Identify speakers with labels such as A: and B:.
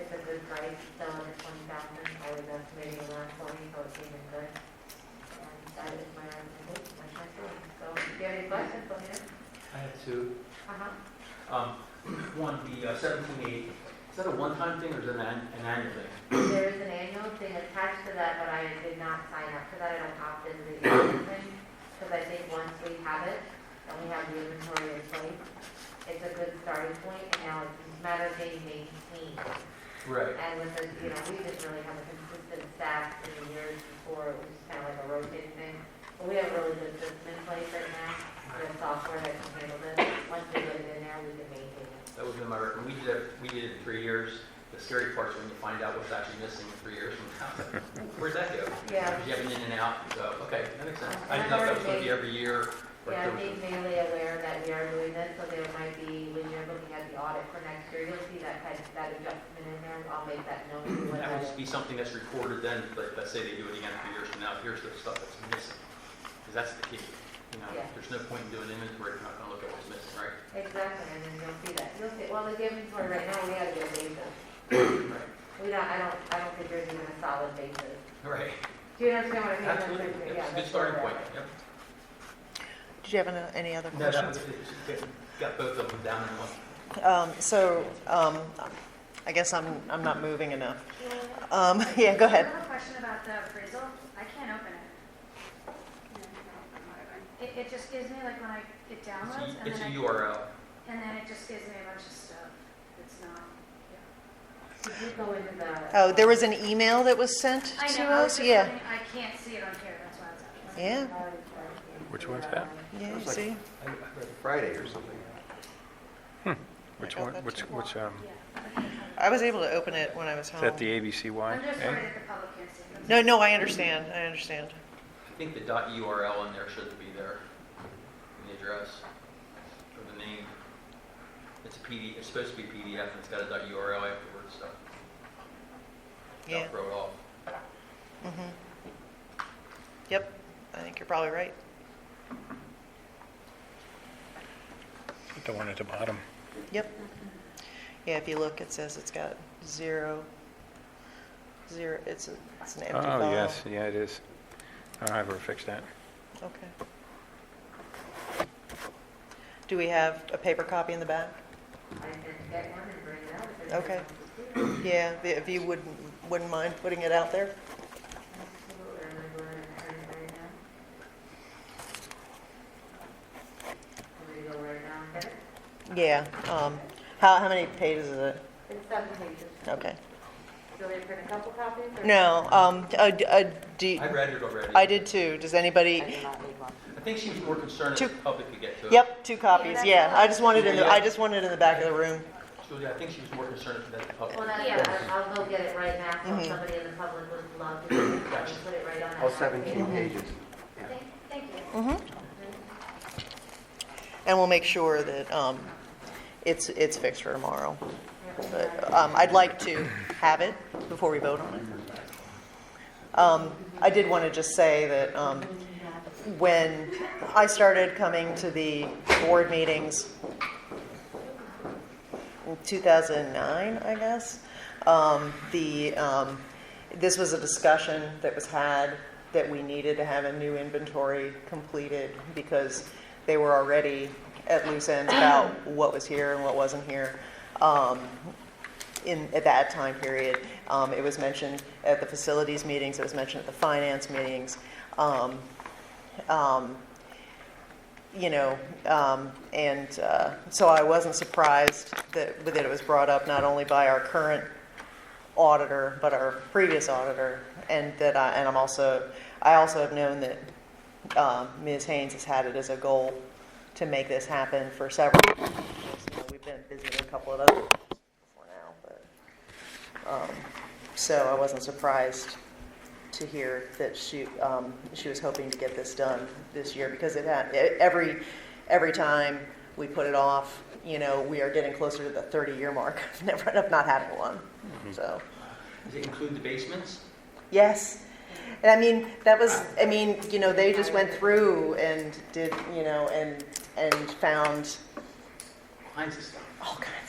A: already still under twenty thousand, I was estimating around twenty, so it's even good. And that is my recommendation, my recommendation. So if you have any questions, let me know.
B: I had two.
A: Uh-huh.
B: Um, one, the uh, 17.8, is that a one-time thing or is it an an an annual thing?
A: There is an annual thing attached to that, but I did not sign up for that, I don't opt into the annual thing, because I think once we have it, and we have the inventory in place, it's a good starting point, and now it's a matter of being maintained.
B: Right.
A: And with this, you know, we didn't really have a consistent staff in the years before, it was just kind of like a rotating thing. But we have a really good system in place right now, and a software that can handle this. Once we get it in there, we can maintain it.
B: That was in my, rec- we did it, we did it in three years. The scary part's when you find out what's actually missing in three years from now. Where'd that go?
A: Yeah,
B: Because you have an in and out, so, okay, that makes sense. I didn't know if that was going to be every year or
A: yeah, I'm
B: if there
A: being
B: was
A: mainly aware that we are doing this, so there might be, when you're looking at the audit for next year, you'll see that kind of, that adjustment in there. I'll make that note.
B: a-
A: what
B: That
A: that
B: would
A: is.
B: just be something that's recorded then, but let's say they do it again three years from now, here's the stuff that's missing. Because that's the key. You know,
A: Yeah.
B: there's no point in doing inventory if you're not going to look at what's missing, right?
A: Exactly, and then you'll see that. You'll see, well, the inventory right now, we have good basis.
B: Right.
A: We don't, I don't, I don't think there's even a solid basis.
B: Right.
A: Do you understand what I mean?
B: Absolutely.
A: That's- yeah,
B: That's a good
A: that's
B: starting
A: where
B: point.
A: we're at.
B: Yep.
C: Did you have an- any other
B: No, that
C: questions?
B: was, it got both of them down in one.
C: Um, So um, I guess I'm, I'm not moving enough. Um, Yeah, go
D: I
C: ahead.
D: have a question about the appraisal. I can't open it. It, it just gives me like when I, it
B: It's
D: downloads
B: a-
D: and
B: It's
D: then
B: a
D: I,
B: URL.
D: and then it just gives me a bunch of stuff. It's not.
A: Did you go into the?
C: Oh, there was an email that was sent
D: I
C: to
D: know, I was
C: us?
D: just
C: Yeah,
D: wondering- I can't see it on here, that's why it's up.
A: uh,
C: yeah,
E: Which one's that?
C: yeah, you
E: was like-
C: see?
B: I- I read it.
E: Friday or something. Which
C: got
E: one,
C: that
E: which,
C: too.
E: which, um,
C: I was able to open it when I was
E: is
C: home.
E: that the ABCY?
D: I'm just
E: Eh?
D: worried that the public can't see it.
C: No, no, I understand, I understand.
B: I think the dot URL in there should be there, in the address, or the name. It's a PD, it's supposed to be PDF, and it's got a dot URL afterwards, so
C: Yeah,
B: don't throw it off.
C: mhm. Yep, I think you're probably right.
E: The one at the bottom.
C: Yep. Yeah, if you look, it says it's got zero, zero, it's, a- it's an empty file.
E: Oh, yes, yeah, it is. I don't ever fix that.
C: Okay. Do we have a paper copy in the back?
A: I can get one and bring it out. if it's
C: Okay.
A: on the computer.
C: Yeah, if you wouldn't, wouldn't mind putting it out there?
A: Absolutely, I'm gonna go ahead and print it right now. I'm gonna go right now and get it.
C: Yeah, um, how, how many pages is it?
A: It's seven pages.
C: Okay.
A: Do they print a couple copies? or-
C: No, um, uh, d- uh, do,
B: I read it already.
C: I did too. Does
A: I
C: anybody?
A: did not leave one.
B: I think she was more concerned
C: Two.
B: if the public could get to it.
C: Yep, two copies, yeah. I just wanted in the, I just wanted in the back of the room.
B: Julia, I think she was more concerned if that the public.
A: Well,
B: could
A: that's,
B: get to it.
A: yeah, I'll I'll go get it right now, so
C: Mhm.
A: somebody in the public would love to do it, I can put it right on. that
F: All
A: table.
F: 17 pages.
D: Thank, thank you.
C: Mm-hmm. And we'll make sure that, um, it's, it's fixed for tomorrow. But, um, I'd like to have it before we vote on it. Um, I did want to just say that, um, when I started coming to the board meetings in 2009, I guess, um, the, um, this was a discussion that was had that we needed to have a new inventory completed because they were already at loose ends about what was here and what wasn't here. Um, in, at that time period. Um, it was mentioned at the facilities meetings, it was mentioned at the finance meetings. Um, um, you know, um, and uh, so I wasn't surprised that, that it was brought up not only by our current auditor, but our previous auditor, and that I, and I'm also, I also have known that um, Ms. Haynes has had it as a goal to make this happen for several. years. You know, We've been busy with a couple of other for now, but, um, so I wasn't surprised to hear that she, um, she was hoping to get this done this year, because it had, e- every, every time we put it off, you know, we are getting closer to the thirty-year mark, of never, of not having one, so,
B: Does it include the basements?
C: yes. And I mean, that was, I mean, you know, they just went through and did, you know, and, and found
B: All Kinds of stuff.
C: all kinds